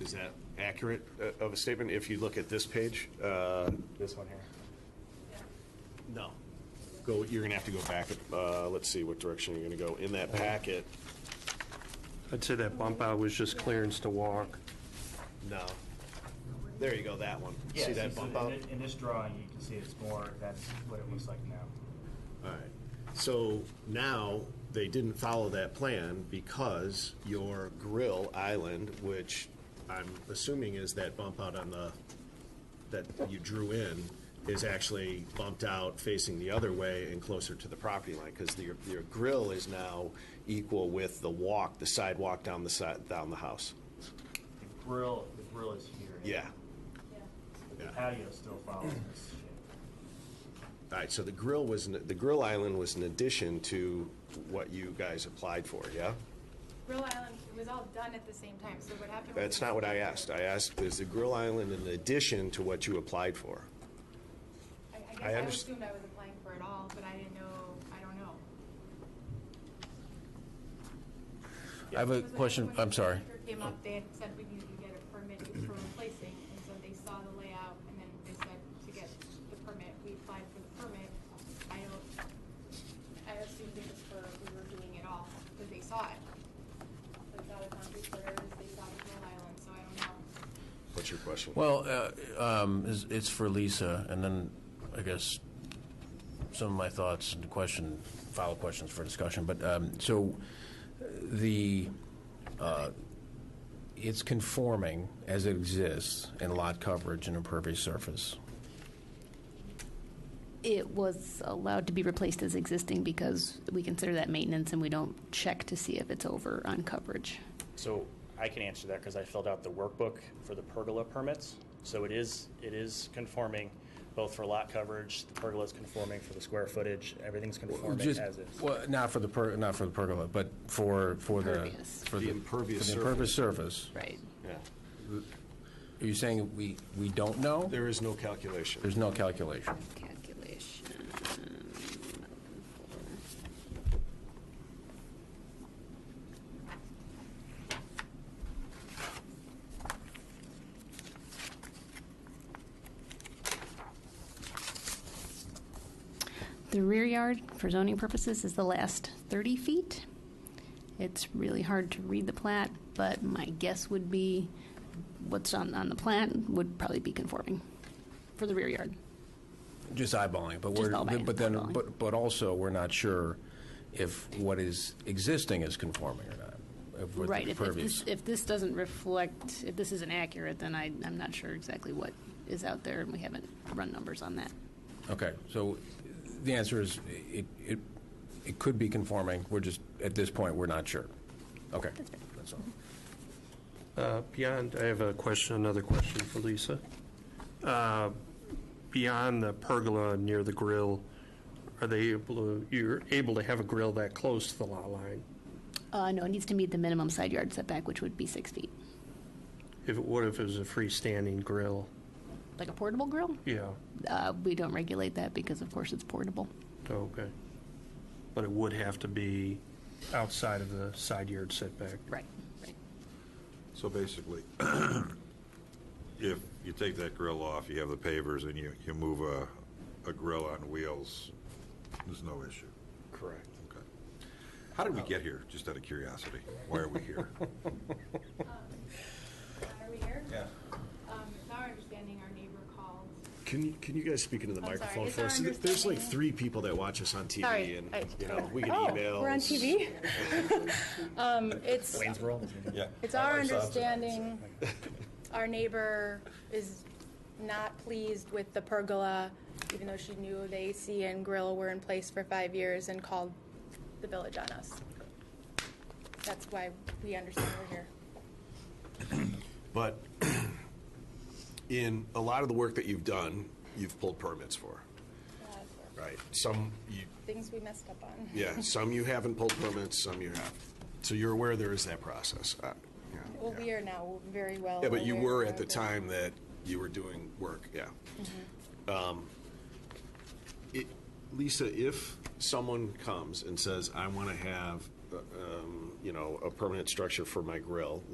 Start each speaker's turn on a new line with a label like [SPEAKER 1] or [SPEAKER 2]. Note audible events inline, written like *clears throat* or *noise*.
[SPEAKER 1] Is that accurate uh, of a statement? If you look at this page, uh, this one here? No. Go, you're going to have to go back, uh, let's see what direction you're going to go. In that packet,
[SPEAKER 2] I'd say that bump out was just clearance to walk.
[SPEAKER 1] no. There you go, that one.
[SPEAKER 3] Yes,
[SPEAKER 1] See that
[SPEAKER 3] it's-
[SPEAKER 1] bump
[SPEAKER 3] in
[SPEAKER 1] out?
[SPEAKER 3] thi- In this drawing, you can see it's more, that's what it looks like now.
[SPEAKER 1] All right. So now they didn't follow that plan because your grill island, which I'm assuming is that bump out on the, that you drew in, is actually bumped out facing the other way and closer to the property line, because your, your grill is now equal with the walk, the sidewalk down the side, down the house.
[SPEAKER 3] The grill, the grill is here.
[SPEAKER 1] Yeah.
[SPEAKER 3] But The
[SPEAKER 1] yeah.
[SPEAKER 3] patio still follows this shape.
[SPEAKER 1] All right, so the grill was, an- the grill island was an addition to what you guys applied for, yeah?
[SPEAKER 4] Grill Island, it was all done at the same time, so what happened? was-
[SPEAKER 1] That's not what I asked. I asked, is the Grill Island in addition to what you applied for?
[SPEAKER 4] I- I
[SPEAKER 1] I
[SPEAKER 4] guess I
[SPEAKER 1] underst-
[SPEAKER 4] assumed I was applying for it all, but I didn't know, I don't know.
[SPEAKER 5] I have a
[SPEAKER 4] Because when-
[SPEAKER 5] question,
[SPEAKER 4] when the
[SPEAKER 5] I'm sorry.
[SPEAKER 4] contractor Came up, they had said we needed to get a permit for replacing, and so they saw the layout, and then they said to get the permit, we applied for the permit. I don't, I assumed it was for, we were doing it all, because they saw it. They saw the concrete footers, they saw the Grill Island, so I don't know.
[SPEAKER 1] What's your question?
[SPEAKER 5] Well, uh, um, it's- it's for Lisa, and then I guess some of my thoughts and question, follow questions for discussion, but, um, so uh, the, uh, it's conforming as it exists in lot coverage and impervious surface.
[SPEAKER 6] It was allowed to be replaced as existing because we consider that maintenance and we don't check to see if it's over on coverage.
[SPEAKER 7] So I can answer that because I filled out the workbook for the pergola permits. So it is, it is conforming both for lot coverage, the pergola is conforming for the square footage, everything's conforming
[SPEAKER 5] Just-
[SPEAKER 7] as is.
[SPEAKER 5] Well, not for the, per- not for the pergola, but for, for the.
[SPEAKER 6] Impervious.
[SPEAKER 5] for
[SPEAKER 1] The impervious
[SPEAKER 5] for the impervious surface.
[SPEAKER 6] Right.
[SPEAKER 1] Yeah.
[SPEAKER 5] Are you saying we, we don't know?
[SPEAKER 1] There is no calculation.
[SPEAKER 5] There's no calculation.
[SPEAKER 6] Calculation. The rear yard, for zoning purposes, is the last 30 feet. It's really hard to read the plat, but my guess would be what's on, on the plat would probably be conforming for the rear yard.
[SPEAKER 5] Just eyeballing, but
[SPEAKER 6] Just
[SPEAKER 5] we're,
[SPEAKER 6] eyeballing,
[SPEAKER 5] but then,
[SPEAKER 6] eyeballing.
[SPEAKER 5] but, but also, we're not sure if what is existing is conforming or not. if with the
[SPEAKER 6] Right, if, if
[SPEAKER 5] pervious.
[SPEAKER 6] this, if this doesn't reflect, if this isn't accurate, then I, I'm not sure exactly what is out there, and we haven't run numbers on that.
[SPEAKER 5] Okay, so the answer is, it, it, it could be conforming, we're just, at this point, we're not sure. Okay. That's all.
[SPEAKER 2] Uh, Beyond, I have a question, another question for Lisa. Uh, Beyond the pergola near the grill, are they able, to- you're able to have a grill that close to the lot line?
[SPEAKER 6] Uh, no, it needs to meet the minimum side yard setback, which would be six feet.
[SPEAKER 2] If, it- what if it was a freestanding grill?
[SPEAKER 6] Like a portable grill?
[SPEAKER 2] Yeah,
[SPEAKER 6] Uh, we don't regulate that because, of course, it's portable.
[SPEAKER 2] okay. But it would have to be outside of the side yard setback.
[SPEAKER 6] Right, right.
[SPEAKER 8] So basically, *clears throat* if you take that grill off, you have the pavers, and you, you move a, a grill on wheels, there's no issue.
[SPEAKER 2] Correct.
[SPEAKER 8] Okay. How did we get here, just out of curiosity? Why are we here?
[SPEAKER 4] Are we here? Um, it's our understanding our neighbor called.
[SPEAKER 1] Can, you- can you guys speak into the
[SPEAKER 4] I'm sorry,
[SPEAKER 1] microphone
[SPEAKER 4] is
[SPEAKER 1] for
[SPEAKER 4] our
[SPEAKER 1] us? There's like
[SPEAKER 4] understanding-
[SPEAKER 1] three people that watch us on TV
[SPEAKER 4] Sorry,
[SPEAKER 1] and,
[SPEAKER 4] I-
[SPEAKER 1] you know, we get
[SPEAKER 4] Oh,
[SPEAKER 1] emails.
[SPEAKER 4] We're
[SPEAKER 1] *laughs*
[SPEAKER 4] on TV? Um, It's,
[SPEAKER 8] Yeah.
[SPEAKER 4] it's
[SPEAKER 1] *laughs*
[SPEAKER 4] our understanding, our neighbor is not pleased with the pergola, even though she knew the AC and grill were in place for five years and called the village on us. That's why we understand we're here.
[SPEAKER 1] But *clears throat* in a lot of the work that you've done, you've pulled permits for,
[SPEAKER 4] Uh,
[SPEAKER 1] right? Some, you,
[SPEAKER 4] Things we messed up on.
[SPEAKER 1] yeah, some you haven't pulled permits, some you have. So you're aware there is that process. uh, yeah,
[SPEAKER 4] Well,
[SPEAKER 1] yeah.
[SPEAKER 4] we are now very well.
[SPEAKER 1] Yeah, but you
[SPEAKER 4] aware
[SPEAKER 1] were
[SPEAKER 4] of
[SPEAKER 1] at the
[SPEAKER 4] it.
[SPEAKER 1] time that you were doing work, yeah. Um, it- Lisa, if someone comes and says, I want to have, uh, um, you know, a permanent structure for my grill,